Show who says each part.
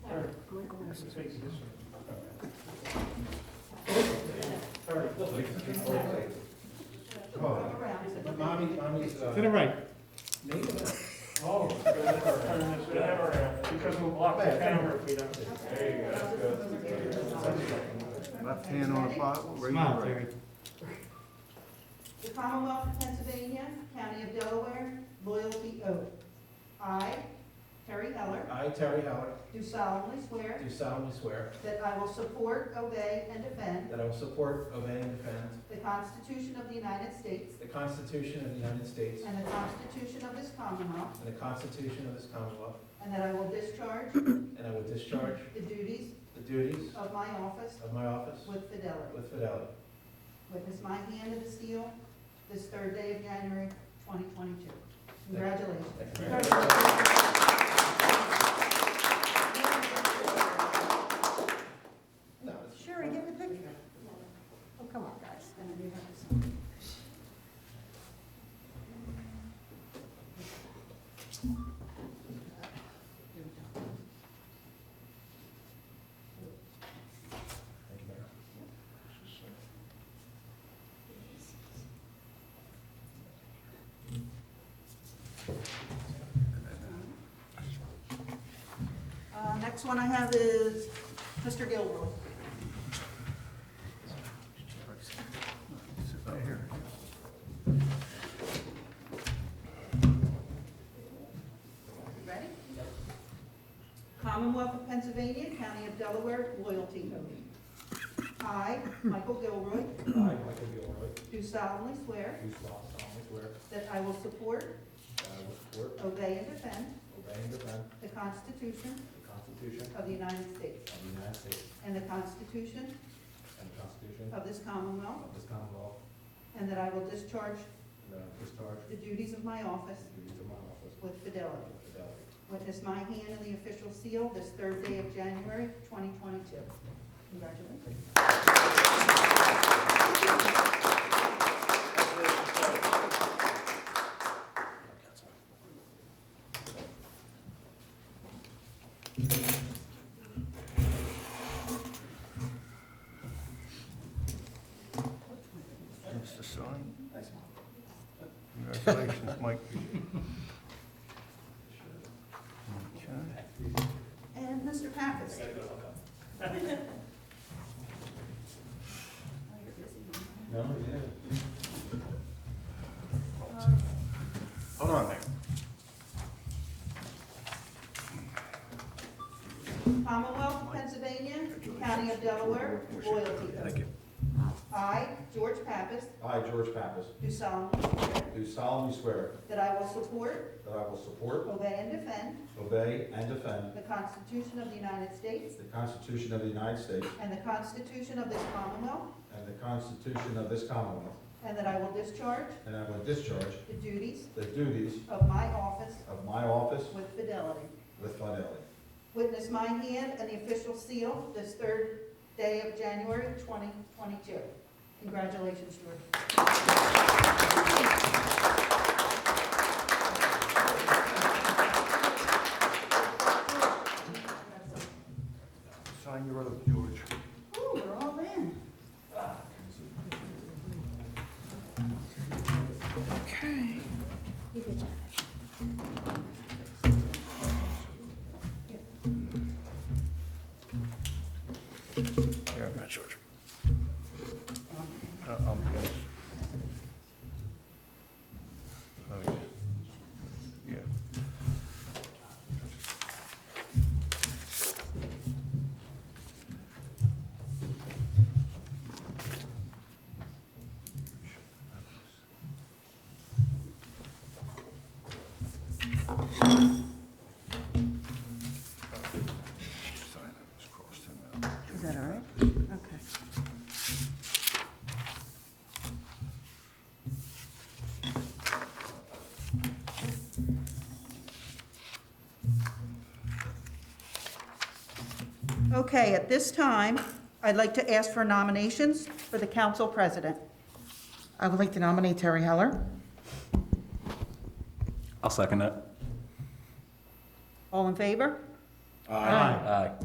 Speaker 1: Oh, but mommy, mommy's,
Speaker 2: To the
Speaker 1: uh,
Speaker 2: right.
Speaker 1: native.
Speaker 3: Oh, turn this camera around, because we'll block the camera if we don't. There you go, that's good.
Speaker 4: Left hand on the Bible, raise your
Speaker 2: Smile,
Speaker 4: right.
Speaker 2: Terry.
Speaker 5: The Commonwealth of Pennsylvania, County of Delaware, loyalty oath. I, Terry Heller,
Speaker 1: I, Terry Howard,
Speaker 5: do solemnly swear
Speaker 1: do solemnly swear
Speaker 5: that I will support, obey, and defend
Speaker 1: that I will support, obey, and defend
Speaker 5: the Constitution of the United States
Speaker 1: the Constitution of the United States
Speaker 5: and the Constitution of this Commonwealth,
Speaker 1: and the Constitution of this Commonwealth,
Speaker 5: and that I will discharge
Speaker 1: and I will discharge
Speaker 5: the duties
Speaker 1: the duties
Speaker 5: of my office
Speaker 1: of my office
Speaker 5: with fidelity.
Speaker 1: with fidelity.
Speaker 5: Witness my hand in the seal this third day of January, 2022. Congratulations.
Speaker 1: Thank you very much. No, it's-
Speaker 6: Sherry, give the picture. Oh, come on, guys.
Speaker 1: Thank you, Mayor.
Speaker 5: Uh, Next one I have is Mr. Gilroy.
Speaker 4: Sit right here.
Speaker 5: Ready? Commonwealth of Pennsylvania, County of Delaware, loyalty oath. I, Michael Gilroy,
Speaker 3: I, Michael Gilroy,
Speaker 5: do solemnly swear
Speaker 3: do solemnly swear
Speaker 5: that I will support,
Speaker 3: that I will support,
Speaker 5: obey, and defend
Speaker 3: obey, and defend
Speaker 5: the Constitution
Speaker 3: the Constitution
Speaker 5: of the United States
Speaker 3: of the United States
Speaker 5: and the Constitution
Speaker 3: and the Constitution
Speaker 5: of this Commonwealth,
Speaker 3: of this Commonwealth,
Speaker 5: and that I will discharge
Speaker 3: and that I will discharge
Speaker 5: the duties of my office
Speaker 3: the duties of my office
Speaker 5: with fidelity.
Speaker 3: with fidelity.
Speaker 5: Witness my hand in the official seal this third day of January, 2022. Congratulations.
Speaker 4: Mr. Sign. Congratulations, Mike. Okay.
Speaker 5: And Mr. Pappas.
Speaker 3: No, yeah.
Speaker 4: Hold on there.
Speaker 5: Commonwealth of Pennsylvania, County of Delaware, loyalty
Speaker 4: Thank
Speaker 5: oath.
Speaker 4: you.
Speaker 5: I, George Pappas,
Speaker 7: I, George Pappas,
Speaker 5: do solemnly swear
Speaker 7: do solemnly swear
Speaker 5: that I will support,
Speaker 7: that I will support,
Speaker 5: obey, and defend
Speaker 7: obey, and defend
Speaker 5: the Constitution of the United States
Speaker 7: the Constitution of the United States
Speaker 5: and the Constitution of this Commonwealth,
Speaker 7: and the Constitution of this Commonwealth,
Speaker 5: and that I will discharge
Speaker 7: and I will discharge
Speaker 5: the duties
Speaker 7: the duties
Speaker 5: of my office
Speaker 7: of my office
Speaker 5: with fidelity.
Speaker 7: with fidelity.
Speaker 5: Witness my hand and the official seal this third day of January 2022. Congratulations, George.
Speaker 4: Sign your oath, George.
Speaker 5: Ooh, we're all in.
Speaker 4: Here, Matt George. Uh, um, yes. Oh, yeah. Yeah. Sign it, it's crossed him out.
Speaker 6: Is that all right? Okay.
Speaker 5: Okay, at this time, I'd like to ask for nominations for the council president. I would like to nominate Terry Heller.
Speaker 8: I'll second it.
Speaker 5: All in favor?
Speaker 2: Aye.
Speaker 8: Aye.